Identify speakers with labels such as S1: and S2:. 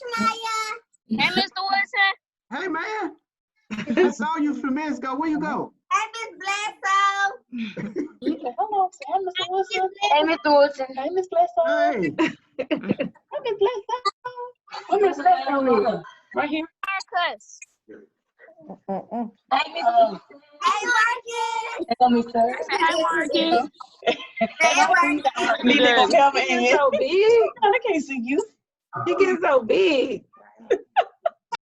S1: Hey, Mr. Woodson,
S2: Hey, man. I saw you a few minutes ago. Where you go?
S3: Hey, Miss Bledsoe.
S4: You can- Hello, say, hey, Mr.
S5: Hey, Mr. Wilson.
S4: Wilson. Hey, Miss Bledsoe.
S2: Hey,
S4: Hey, Miss Bledsoe. Hey, Miss Bledsoe. Right here.
S1: haircuts.
S5: Hey, Mr.
S3: Hey, Marcus.
S5: Wilson.
S1: Hey, Marcus.
S3: Hey, Marcus.
S6: Need to go help Ann.
S7: so big.
S4: I can't see you.
S7: She gets so big.